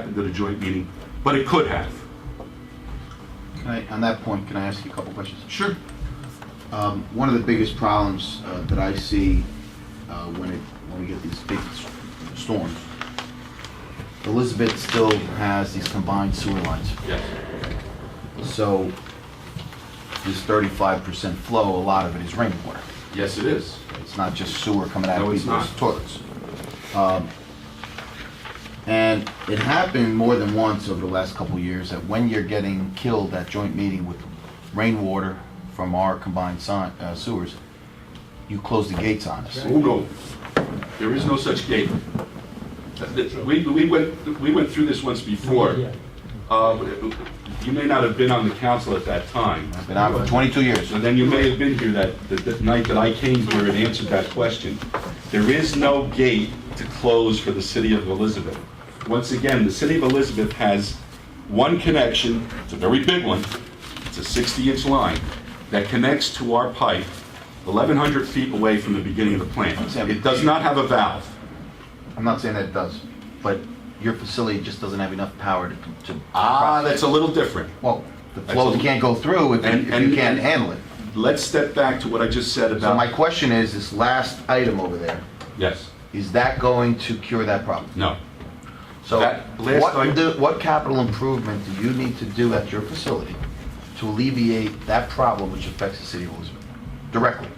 didn't go to joint meeting, but it could have. Can I- On that point, can I ask you a couple questions? Sure. Um, One of the biggest problems uh, that I see uh, when it, when we get these big s- storms, Elizabeth still has these combined sewer lines. Yes. So this 35% flow, a lot of it is rainwater. Yes, it is. It's not just sewer coming out of No, it's people's not. toilets. Um, And it happened more than once over the last couple of years, that when you're getting killed at joint meeting with rainwater from our combined si- uh, sewers, you close the gates on us. Oh, no. There is no such gate. That- that- We, we went, we went through this once before. Uh, You may not have been on the council at that time. I've been out for 22 years. So then you may have been here that, that- that night that I came here and answered that question. There is no gate to close for the city of Elizabeth. Once again, the city of Elizabeth has one connection, it's a very big one, it's a 60-inch line, that connects to our pipe 1,100 feet away from the beginning of the plant. It does not have a valve. I'm not saying that it does, but your facility just doesn't have enough power to- to... Ah, that's a little different. Well, the flows can't go through if And- you- if and- you can't handle it. Let's step back to what I just said So my about... question is, this last item over there, Yes, is that going to cure that problem? no. So That last what, item- do- what capital improvement do you need to do at your facility to alleviate that problem which affects the city of Elizabeth directly?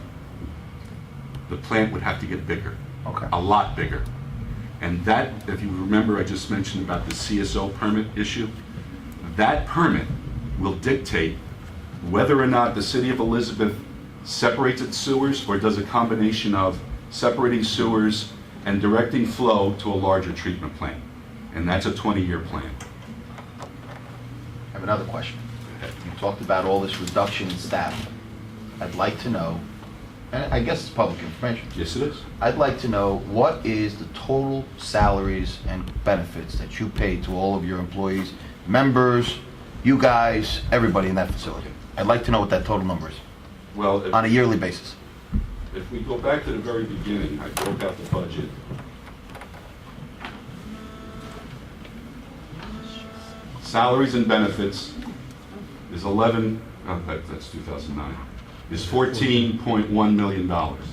the plant would have to get bigger. Okay. A lot bigger. And that, if you remember, I just mentioned about the CSO permit issue. That permit will dictate whether or not the city of Elizabeth separates its sewers or does a combination of separating sewers and directing flow to a larger treatment plant. And that's a 20-year plan. I have another question. You talked about all this reduction in staff. I'd like to know, and I guess it's public information, Yes, it is. I'd like to know what is the total salaries and benefits that you pay to all of your employees, members, you guys, everybody in that facility? I'd like to know what that total number is Well, if- on a yearly basis. If we go back to the very beginning, I broke out the budget. Salaries and benefits is 11, oh, that- that's 2009, is 14.1 million dollars.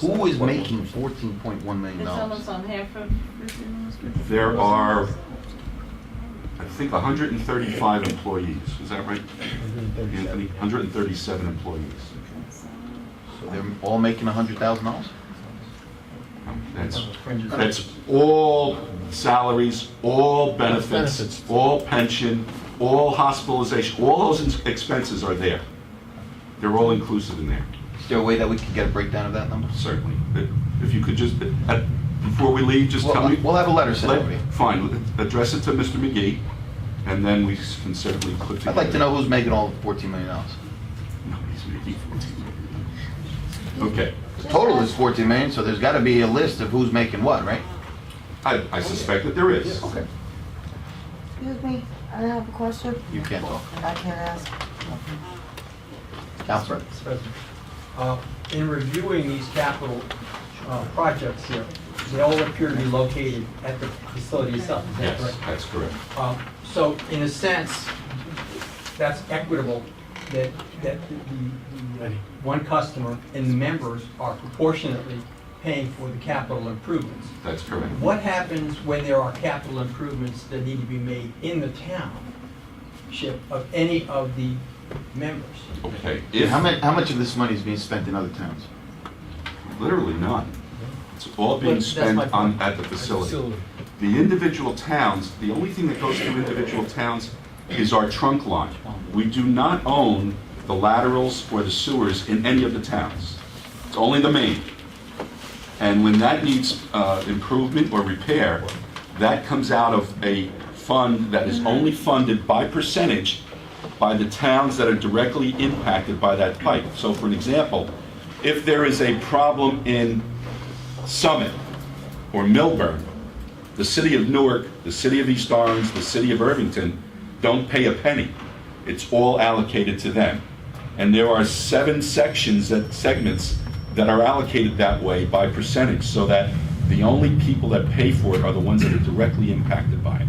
Who is making fourteen point one million It's dollars? almost on half of. There are, I think, 135 employees, is that right, Anthony? 137 employees. So they're all making a hundred thousand dollars? That's That's all salaries, all benefits, Benefits. all pension, all hospitalization, all those ins- expenses are there. They're all inclusive in there, Is there a way that we can get a breakdown of that number? certainly. If- If you could just, uh, before we leave, just tell We'll, me. we'll have a letter sent Let- over to you. Fine, address it to Mr. McGee, and then we can certainly put together. I'd like to know who's making all the fourteen million dollars. Nobody's making 14 million. Okay, The total is fourteen million, so there's gotta be a list of who's making what, right? I I suspect that there is. Okay. Excuse me, I have a question. You can't talk. I can't ask. Counselor. Mr. President, uh, In reviewing these capital uh, projects here, they all appear to be located at the facility itself, is that Yes, correct? that's correct. Uh, So in a sense, that's equitable, that, that the- the, the one customer and the members are proportionately paying for the capital improvements. That's correct. What happens when there are capital improvements that need to be made in the township of any of the members? Okay. If- How much, how much of this money is being spent in other towns? Literally none. It's all But being that's spent my point. on, at the facility. The individual towns, the only thing that goes through individual towns is our trunk line. We do not own the laterals or the sewers in any of the towns. It's only the main. And when that needs uh, improvement or repair, that comes out of a fund that is only funded by percentage by the towns that are directly impacted by that pipe. So for an example, if there is a problem in Summit or Millburn, the city of Newark, the city of East Orange, the city of Irvington don't pay a penny. It's all allocated to them. And there are seven sections that, segments that are allocated that way by percentage, so that the only people that pay for it are the ones that are directly impacted by it.